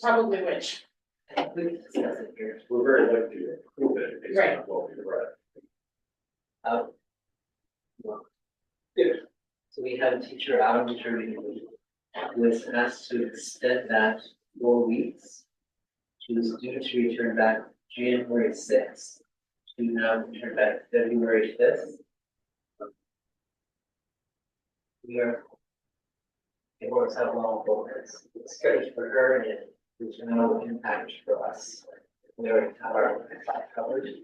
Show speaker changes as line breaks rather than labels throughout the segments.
probably which,
We're very lucky to approve it, it's
Right.
not what we read.
out. well, Um, So we had a teacher out of maternity leave who was asked to extend that four weeks. She was due to return back January sixth, she now returned back February fifth. We are. It works out well for us, it's good for her and there's no impact for us. We already have our coverage.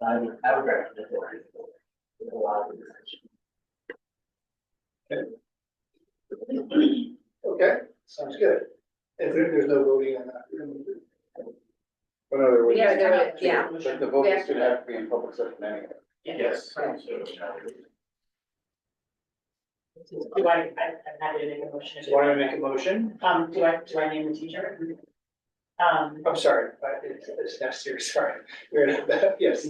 I would, I would recommend it. With a lot of discussion.
Okay, sounds good. If there- there's no voting on that.
Well, no, there was-
we have to have,
but-
yeah.
But the
we
vote
have
is
to-
gonna have to be in public session anyway.
Yes.
Right.
So,
Do I, I, I'm happy to make a motion.
So why don't I make a motion?
Um, do I, do I name the teacher? Um,
I'm sorry, but it's, it's next year, sorry. We're- Yes,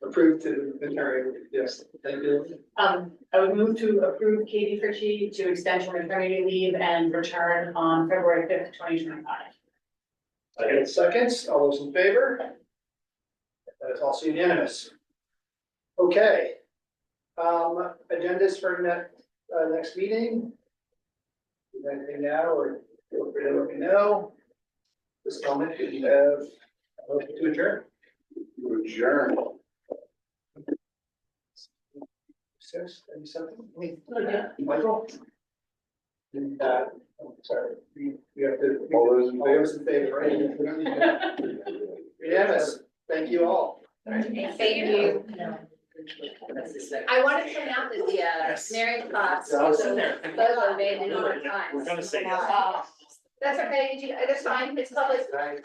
approved to the notary, yes, thank you.
um, I would move to approve Katie Fritchie to extend her maternity leave and return on February fifth, twenty twenty-five.
I get seconds, all those in favor? That is also unanimous. Okay. Um, agendas for next, uh, next meeting? Is there Anything now, or feel free to let me know? This comment, if you have, a motion to adjourn?
You adjourn.
Six, any something? Michael? And, uh, I'm sorry, we, we have to,
All those in
all
favor?
those in favor, right? Yes, thank you all.
Thank you.
That's the second.
I want to point out that the uh,
Yes.
Mary Fox,
I was
Bozo,
there.
Bozo made it on time. Uh,
We're gonna say yes.
That's okay, you- that's uh, fine, it's public